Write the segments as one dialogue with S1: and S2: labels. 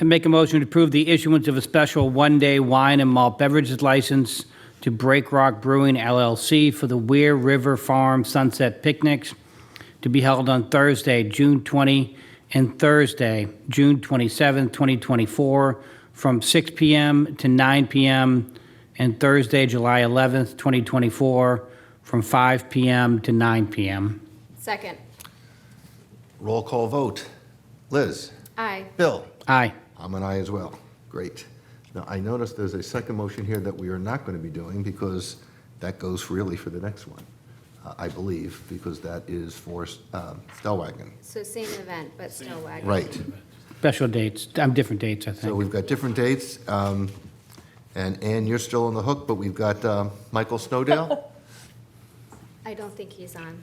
S1: I make a motion to approve the issuance of a special one-day wine and malt beverages license to Break Rock Brewing LLC for the Weir River Farm Sunset Picnics to be held on Thursday, June 20, and Thursday, June 27, 2024, from 6 p.m. to 9 p.m., and Thursday, July 11th, 2024, from 5 p.m. to 9 p.m.
S2: Second.
S3: Roll call vote. Liz?
S2: Aye.
S3: Bill?
S1: Aye.
S3: I'm an aye as well. Great. Now, I noticed there's a second motion here that we are not going to be doing because that goes really for the next one, uh, I believe, because that is for um, Stellwagen.
S2: So same event, but still wagon.
S3: Right.
S1: Special dates, um, different dates, I
S3: So
S1: think.
S3: we've got different dates. um, And Ann, you're still on the hook, but we've got um, Michael Snowdale.
S2: I don't think he's on.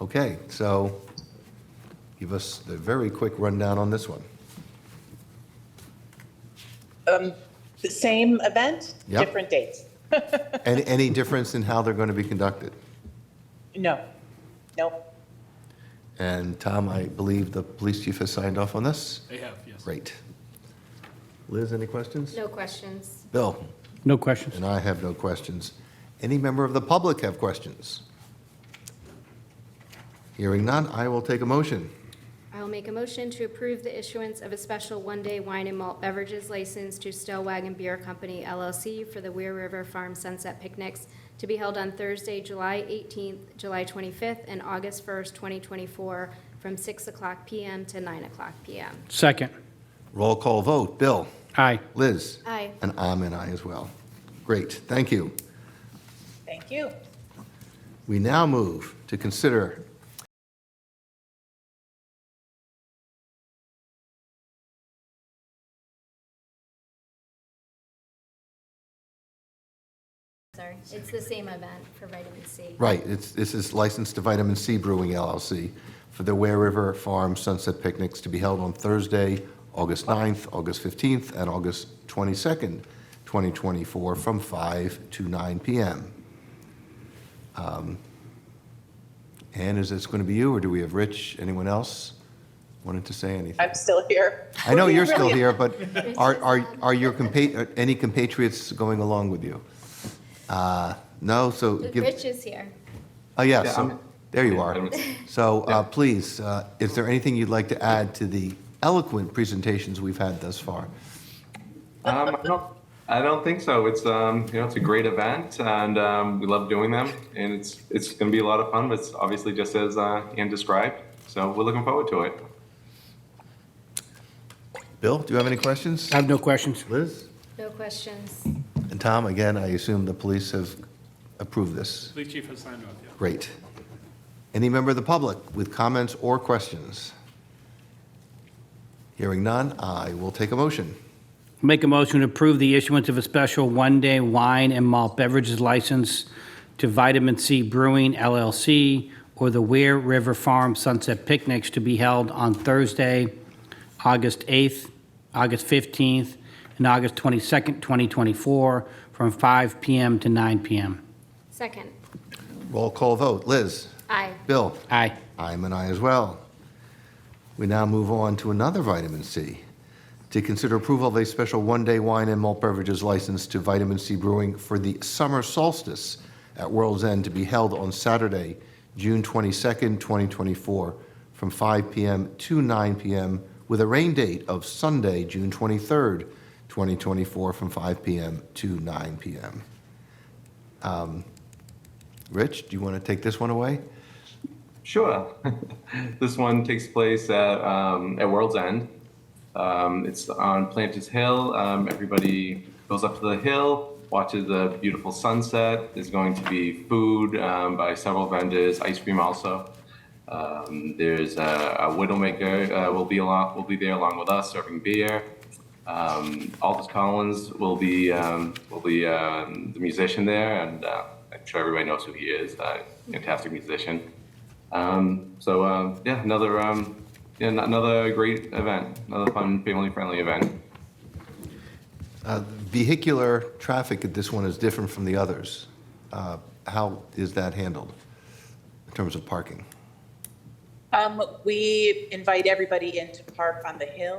S3: Okay, so give us the very quick rundown on this one.
S4: The same event,
S3: Yep.
S4: different dates?
S3: Any, any difference in how they're going to be conducted?
S4: No, nope.
S3: And Tom, I believe the police chief has signed off on this?
S5: They have, yes.
S3: Great. Liz, any questions?
S2: No questions.
S3: Bill?
S1: No questions?
S3: And I have no questions. Any member of the public have questions? Hearing none, I will take a motion.
S2: I'll make a motion to approve the issuance of a special one-day wine and malt beverages license to Still Wagon Beer Company LLC for the Weir River Farm Sunset Picnics to be held on Thursday, July 18th, July 25th, and August 1st, 2024, from 6 o'clock PM to 9 o'clock PM.
S1: Second.
S3: Roll call vote. Bill?
S1: Aye.
S3: Liz?
S2: Aye.
S3: And I'm an aye as well. Great, thank you.
S4: Thank you.
S3: We now move to consider
S2: Sorry, it's the same event for vitamin C.
S3: Right, it's, this is licensed to Vitamin C Brewing LLC for the Ware River Farm Sunset Picnics to be held on Thursday, August 9th, August 15th, and August 22nd, 2024, from 5 to 9 p.m. Um, Ann, is this going to be you, or do we have Rich, anyone else wanted to say anything?
S4: I'm still here.
S3: I know you're still
S4: Really?
S3: here, but are, are, are your, compa- are any compatriots going along with you? Uh, No, so give...
S2: Rich is here.
S3: Oh, yeah, so, there you are. So, uh, please, uh, is there anything you'd like to add to the eloquent presentations we've had thus far?
S6: Um, I don't, I don't think so. It's um, you know, it's a great event, and um, we love doing them, and it's it's going to be a lot of fun. But it's obviously just as uh, Ann described, so we're looking forward to it.
S3: Bill, do you have any questions?
S1: I have no questions.
S3: Liz?
S2: No questions.
S3: And Tom, again, I assume the police have approved this.
S5: Police chief has signed off, yeah.
S3: Great. Any member of the public with comments or questions? Hearing none, I will take a motion.
S1: Make a motion to approve the issuance of a special one-day wine and malt beverages license to Vitamin C Brewing LLC or the Weir River Farm Sunset Picnics to be held on Thursday, August 8th, August 15th, and August 22nd, 2024, from 5 p.m. to 9 p.m.
S2: Second.
S3: Roll call vote. Liz?
S2: Aye.
S3: Bill?
S1: Aye.
S3: I'm an I as well. We now move on to another vitamin C. To consider approval of a special one-day wine and malt beverages license to Vitamin C Brewing for the summer solstice at World's End to be held on Saturday, June 22nd, 2024, from 5 p.m. to 9 p.m., with a rain date of Sunday, June 23rd, 2024, from 5 p.m. to 9 p.m. Um, Rich, do you want to take this one away?
S6: Sure. this one takes place at, um, at World's End. Um, it's on Planters Hill. Um, everybody goes up to the hill, watches the beautiful sunset. There's going to be food um, by several vendors, ice cream also. Um, there's a, a widowmaker uh, will be along, will be there along with us serving beer. Um, Aldous Collins will be um, will be um, the musician there, and uh, I'm sure everybody knows who he is. Uh, fantastic musician. Um, so um, yeah, another um, yeah, n- another great event, another fun family-friendly event.
S3: Uh, Vehicular traffic at this one is different from the others. Uh, How is that handled in terms of parking?
S4: Um, We invite everybody in to park on the hill